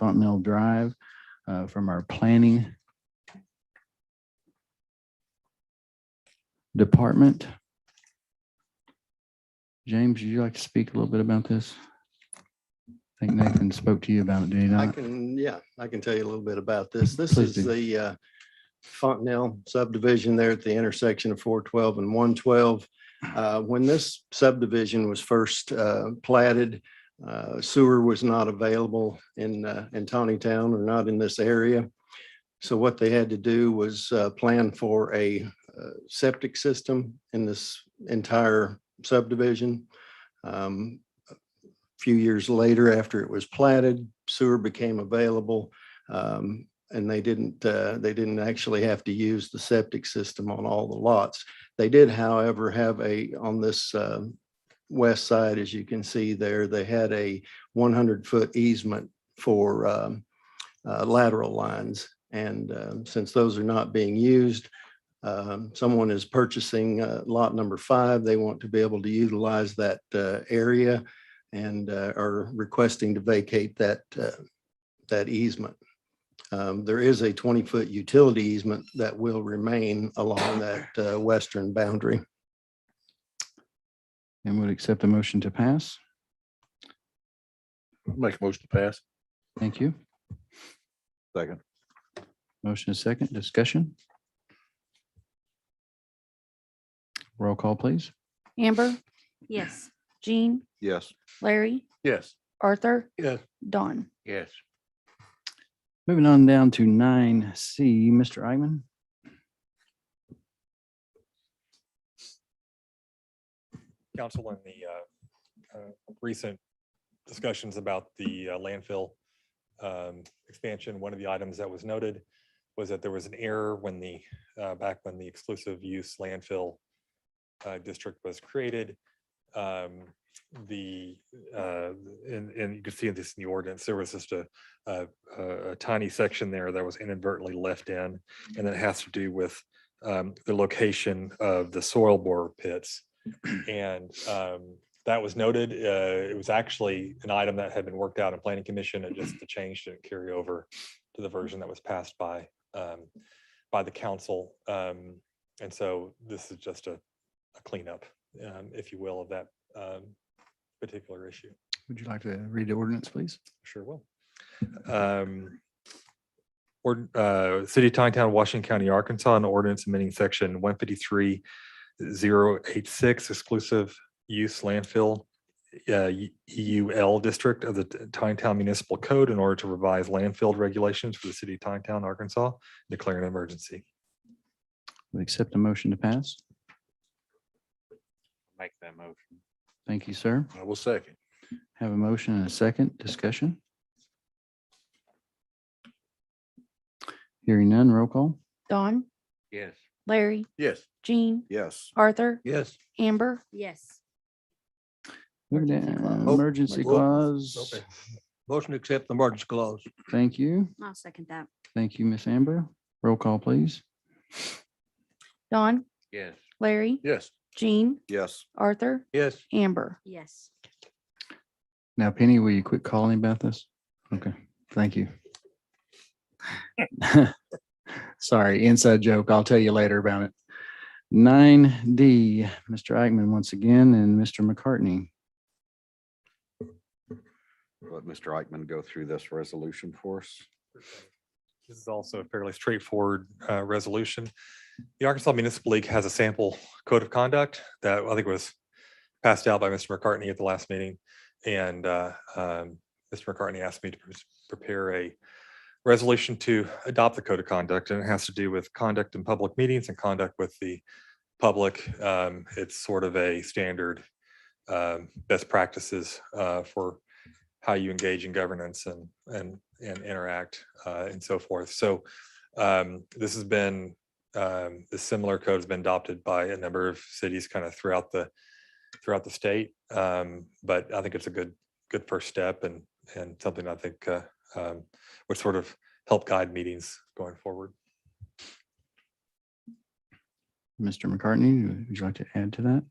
Fontanel Drive uh, from our planning department. James, would you like to speak a little bit about this? I think Nathan spoke to you about it, did he I not? can, yeah, I can tell you a little bit about this. This Please is do. the uh, Fontanel subdivision there at the intersection of four twelve and one twelve. Uh, When this subdivision was first uh, platted, uh, sewer was not available in, uh, in Tawny Town or not in this area. So what they had to do was uh, plan for a uh, septic system in this entire subdivision. Um, few years later, after it was platted, sewer became available. um, And they didn't, uh, they didn't actually have to use the septic system on all the lots. They did, however, have a, on this um, west side, as you can see there, they had a 100-foot easement for um, uh, lateral lines. And um, since those are not being used, um, someone is purchasing uh, lot number five. They want to be able to utilize that uh, area and uh, are requesting to vacate that, uh, that easement. Um, There is a 20-foot utility easement that will remain along that uh, western boundary. And would accept the motion to pass? Make a motion to pass. Thank you. Second. Motion is second, discussion. Roll call, please. Amber, Yes. Jean, Yes. Larry, Yes. Arthur. Yes. Don. Yes. Moving on down to nine C, Mr. Eichmann. council in the uh, uh, recent discussions about the uh, landfill um, expansion, one of the items that was noted was that there was an error when the, uh, back when the exclusive use landfill uh, district was created. Um, The, uh, and, and you can see this in the ordinance, there was just a, a- a tiny section there that was inadvertently left in. And that has to do with um, the location of the soil bore pits. And um, that was noted. Uh, It was actually an item that had been worked out in planning commission. It just, the change didn't carry over to the version that was passed by, um, by the council. Um, And so this is just a a cleanup, um, if you will, of that um, particular issue. Would you like to read the ordinance, please? Sure will. Um, Ord uh, City of Tontown, Washington County, Arkansas, an ordinance amending section one fifty-three zero eight six exclusive use landfill uh, E- EUL district of the T- Tontown Municipal Code in order to revise landfill regulations for the city of Tontown, Arkansas, declaring an emergency. Would accept the motion to pass? Make that motion. Thank you, sir. I will second. Have a motion and a second discussion. Hearing none, roll call. Don, Yes. Larry, Yes. Jean, Yes. Arthur, Yes. Amber, Yes. Moving Emergency down, clause. Oh, Emergency my clause. goodness. Okay. Motion to accept the emergency clause. Thank you. I'll second that. Thank you, Miss Amber. Roll call, please. Don, Yes. Larry, Yes. Jean, Yes. Arthur, Yes. Amber. Yes. Now, Penny, will you quit calling about this? Okay, thank you. Sorry, inside joke. I'll tell you later about it. Nine D, Mr. Eichmann once again, and Mr. McCartney. let Mr. Eichmann go through this resolution for us. This is also a fairly straightforward uh, resolution. The Arkansas Municipal League has a sample code of conduct that I think was passed out by Mr. McCartney at the last meeting. And uh, um, Mr. McCartney asked me to pre- prepare a resolution to adopt the code of conduct. And it has to do with conduct in public meetings and conduct with the public. Um, It's sort of a standard um, best practices uh, for how you engage in governance and and and interact uh, and so forth. So um, this has been um, the similar code has been adopted by a number of cities kind of throughout the throughout the state. Um, but I think it's a good good first step and and something I think uh, um, would sort of help guide meetings going forward. Mr. McCartney, would you like to add to that?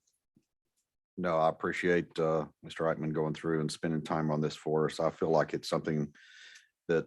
No, I appreciate uh, Mr. Eichmann going through and spending time on this for us. I feel like it's something that